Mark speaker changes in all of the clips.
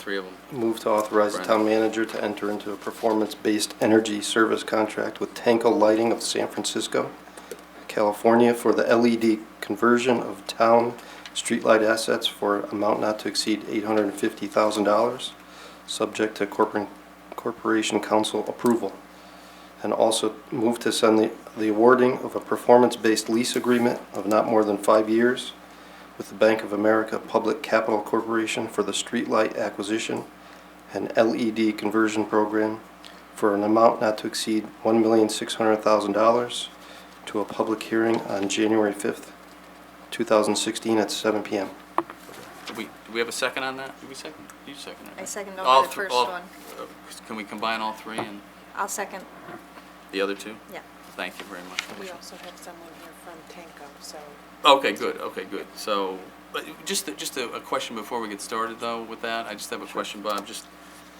Speaker 1: Three of them.
Speaker 2: Move to authorize the town manager to enter into a performance-based energy service contract with Tanko Lighting of San Francisco, California for the LED conversion of town streetlight assets for amount not to exceed $850,000, subject to corporate- corporation council approval. And also move to send the the awarding of a performance-based lease agreement of not more than five years with the Bank of America Public Capital Corporation for the streetlight acquisition and LED conversion program for an amount not to exceed $1,600,000 to a public hearing on January 5th, 2016 at 7 PM.
Speaker 1: Do we, do we have a second on that? Do we second? You second it.
Speaker 3: I
Speaker 1: right?
Speaker 3: seconded
Speaker 1: All
Speaker 3: over the
Speaker 1: thr-
Speaker 3: first
Speaker 1: all-
Speaker 3: one.
Speaker 1: uh, Can we combine all three and
Speaker 3: I'll second,
Speaker 1: the other two?
Speaker 3: yeah.
Speaker 1: Thank you very much.
Speaker 4: We also have someone here from Tanco, so
Speaker 1: Okay, good, okay, good. So, but just, a- just a a question before we get started, though, with that. I just have a question, Bob. Just,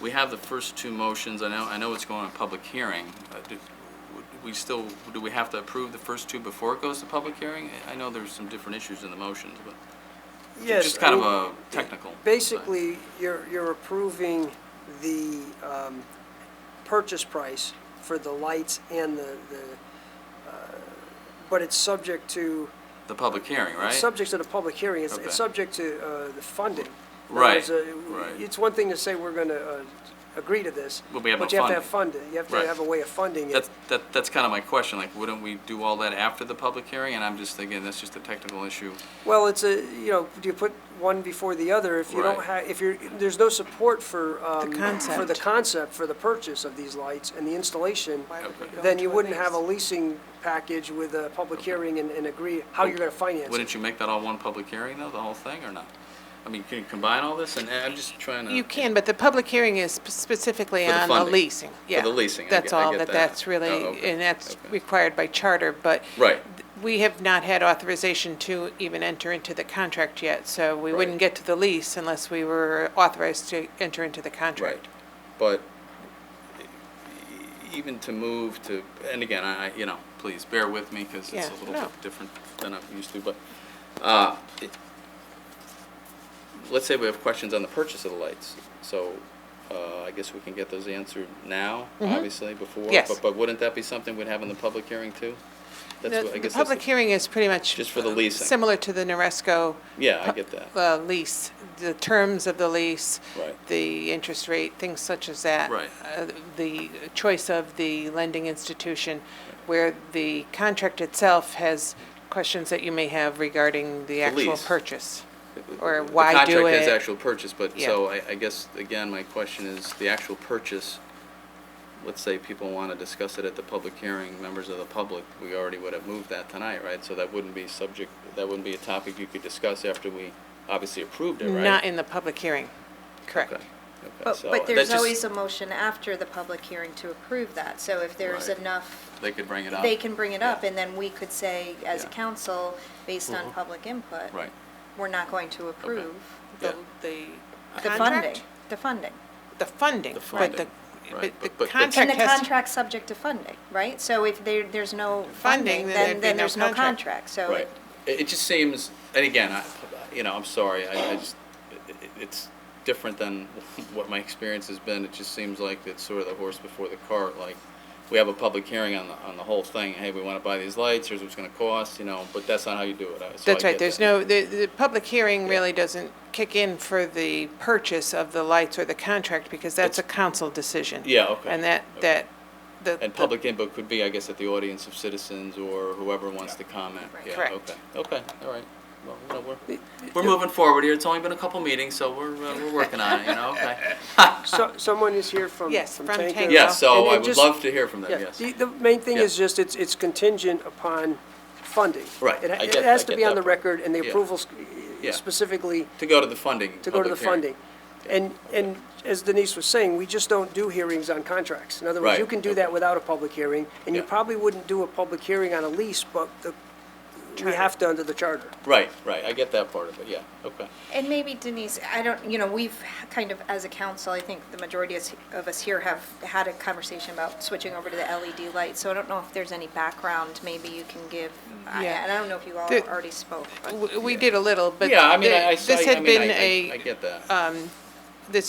Speaker 1: we have the first two motions. I know, I know it's going on public hearing. Uh, do- would We still, do we have to approve the first two before it goes to public hearing? I know there's some different issues in the motions, but
Speaker 5: Yes.
Speaker 1: just kind of
Speaker 5: I
Speaker 1: a
Speaker 5: mean,
Speaker 1: technical. thing.
Speaker 5: Basically, you're, you're approving the um, purchase price for the lights and the, the, uh, but it's subject to,
Speaker 1: The public hearing, right?
Speaker 5: it's subject to the public hearing, it's,
Speaker 1: Okay.
Speaker 5: it's subject to uh, the funding. In other
Speaker 1: Right,
Speaker 5: words, uh,
Speaker 1: right.
Speaker 5: It's one thing to say we're going to agree to this.
Speaker 1: But we have no
Speaker 5: But you have to have funded, you have to
Speaker 1: Right.
Speaker 5: have a way of funding it.
Speaker 1: That's, that, that's kind of my question, like, wouldn't we do all that after the public hearing? And I'm just thinking, that's just a technical issue.
Speaker 5: Well, it's a, you know, do you put one before the other if you don't
Speaker 1: Right.
Speaker 5: have, if you're, there's no support for, um, for the
Speaker 4: concept.
Speaker 5: concept, for the purchase of these lights and the installation,
Speaker 4: why would we
Speaker 1: Okay.
Speaker 4: go
Speaker 5: then you
Speaker 4: into a
Speaker 5: wouldn't have a
Speaker 4: lease?
Speaker 5: leasing package with a public hearing and, and agree how you're gonna finance it.
Speaker 1: Wouldn't you make that all one public hearing, though, the whole thing, or not? I mean, can you combine all this? And I'm just trying to.
Speaker 4: You can, but the public hearing is spe-
Speaker 1: Oh,
Speaker 4: specifically
Speaker 1: For the
Speaker 4: on the
Speaker 1: funding.
Speaker 4: leasing.
Speaker 1: For
Speaker 4: Yeah,
Speaker 1: the leasing, I
Speaker 4: That's
Speaker 1: get- I
Speaker 4: all,
Speaker 1: get
Speaker 4: that
Speaker 1: that.
Speaker 4: that's
Speaker 1: Oh,
Speaker 4: really,
Speaker 1: okay,
Speaker 4: and that's
Speaker 1: okay.
Speaker 4: required by charter, but.
Speaker 1: Right.
Speaker 4: th- We have not had authorization to even enter into the contract yet, so we wouldn't
Speaker 1: Right.
Speaker 4: get to the lease unless we were authorized to enter into the
Speaker 1: Right,
Speaker 4: contract.
Speaker 1: but e- even to move to, and again, I, I- you know, please bear with me, because it's
Speaker 4: Yeah,
Speaker 1: a little
Speaker 4: no.
Speaker 1: bit different than I'm used to, but, uh, it- let's say we have questions on the purchase of the lights, so, uh, I guess we can get those answered now, obviously, before.
Speaker 4: Mm-hmm. Yes.
Speaker 1: But, but wouldn't that be something we'd have in the public hearing too? That's
Speaker 4: The
Speaker 1: what- I
Speaker 4: the
Speaker 1: guess that's
Speaker 4: public hearing is pretty much.
Speaker 1: Just for the leasing.
Speaker 4: Similar to the Noresco.
Speaker 1: Yeah, I
Speaker 4: pu-
Speaker 1: get that.
Speaker 4: uh, Lease, the terms of the lease.
Speaker 1: Right.
Speaker 4: The interest rate, things such as that.
Speaker 1: Right.
Speaker 4: uh, The choice of the lending institution, where the contract itself has questions that you may have regarding the actual
Speaker 1: lease.
Speaker 4: purchase. Or
Speaker 1: The
Speaker 4: why do
Speaker 1: contract has
Speaker 4: it.
Speaker 1: actual purchase, but,
Speaker 4: Yeah.
Speaker 1: so I, I guess, again, my question is, the actual purchase, let's say people want to discuss it at the public hearing, members of the public, we already would have moved that tonight, right? So that wouldn't be subject, that wouldn't be a topic you could discuss after we obviously approved it, right?
Speaker 4: Not in the public hearing, correct.
Speaker 1: Okay, okay,
Speaker 3: But,
Speaker 1: so
Speaker 3: but
Speaker 1: that
Speaker 3: there's
Speaker 1: just-
Speaker 3: always a motion after the public hearing to approve that, so if there's
Speaker 1: Right.
Speaker 3: enough,
Speaker 1: They could bring it up.
Speaker 3: they can bring it up,
Speaker 1: Yeah.
Speaker 3: and then we could say, as a
Speaker 1: Yeah. Uh-huh.
Speaker 3: council, based on public input.
Speaker 1: Right.
Speaker 3: We're not going to approve
Speaker 1: Yeah.
Speaker 4: The, the
Speaker 3: the funding,
Speaker 4: contract?
Speaker 3: the funding.
Speaker 4: The funding.
Speaker 1: The
Speaker 4: but the-
Speaker 1: funding, right,
Speaker 4: But
Speaker 1: but-
Speaker 4: the
Speaker 1: but- but-
Speaker 4: contract has
Speaker 3: And the
Speaker 4: to-
Speaker 3: contract's subject to funding, right? So if there, there's no funding,
Speaker 4: then there'd
Speaker 3: then,
Speaker 4: be
Speaker 3: then
Speaker 4: no
Speaker 3: there's no
Speaker 4: contract.
Speaker 3: contract, so.
Speaker 1: Right.
Speaker 3: it-
Speaker 1: It, it just seems, and again, I, you know, I'm sorry, I, I just, it, it- it's different than what my experience has been. It just seems like it's sort of the horse before the cart, like, we have a public hearing on the, on the whole thing. Hey, we want to buy these lights, here's what it's going to cost, you know, but that's not how you do it. I- so I
Speaker 4: That's right,
Speaker 1: get
Speaker 4: there's
Speaker 1: that.
Speaker 4: no, the, the public hearing really doesn't kick in for the purchase of the lights or the contract, because that's a council decision.
Speaker 1: Yeah, okay,
Speaker 4: And that,
Speaker 1: okay.
Speaker 4: that, the.
Speaker 1: And
Speaker 4: the-
Speaker 1: public input could be, I guess, at the audience of citizens or whoever wants to comment.
Speaker 3: Right.
Speaker 1: Yeah,
Speaker 4: Correct.
Speaker 1: Okay, okay, all right. Well, you know, we're, we're moving forward here. It's only been a couple meetings, so we're, uh, we're working on it, you know, okay.
Speaker 5: So, someone is here from,
Speaker 4: Yes,
Speaker 5: from
Speaker 4: from
Speaker 5: Tanco.
Speaker 4: Tanco.
Speaker 1: Yes, so
Speaker 5: And it
Speaker 1: I would
Speaker 5: just-
Speaker 1: love to hear from them,
Speaker 5: Yeah,
Speaker 1: yes.
Speaker 5: the, the main thing is
Speaker 1: Yeah.
Speaker 5: just, it's, it's contingent upon funding.
Speaker 1: Right,
Speaker 5: It ha-
Speaker 1: I get-
Speaker 5: It has
Speaker 1: I
Speaker 5: to
Speaker 1: get
Speaker 5: be on
Speaker 1: that
Speaker 5: the
Speaker 1: part.
Speaker 5: record, and the
Speaker 1: Yeah.
Speaker 5: approvals
Speaker 1: Yeah.
Speaker 5: specifically
Speaker 1: To go to the funding.
Speaker 5: to go to the
Speaker 1: public hearing.
Speaker 5: funding. And, and as Denise was saying, we just don't do hearings on contracts. In other
Speaker 1: Right,
Speaker 5: words, you can do
Speaker 1: okay.
Speaker 5: that without a public hearing, and you
Speaker 1: Yeah.
Speaker 5: probably wouldn't do a public hearing on a lease, but the, we
Speaker 4: Charter.
Speaker 5: have to under the charter.
Speaker 1: Right, right, I get that part of it, yeah, okay.
Speaker 3: And maybe Denise, I don't, you know, we've kind of, as a council, I think the majority of us- of us here have had a conversation about switching over to the LED light, so I don't know if there's any background maybe you can give. I-
Speaker 4: Yeah.
Speaker 3: And I don't know if you all
Speaker 4: The-
Speaker 3: already spoke. but-
Speaker 4: w- We did a little, but.
Speaker 1: Yeah, I mean,
Speaker 4: the-
Speaker 1: I, I,
Speaker 4: This
Speaker 1: I
Speaker 4: had
Speaker 1: mean,
Speaker 4: been
Speaker 1: I- I, I
Speaker 4: a,
Speaker 1: get that.
Speaker 4: this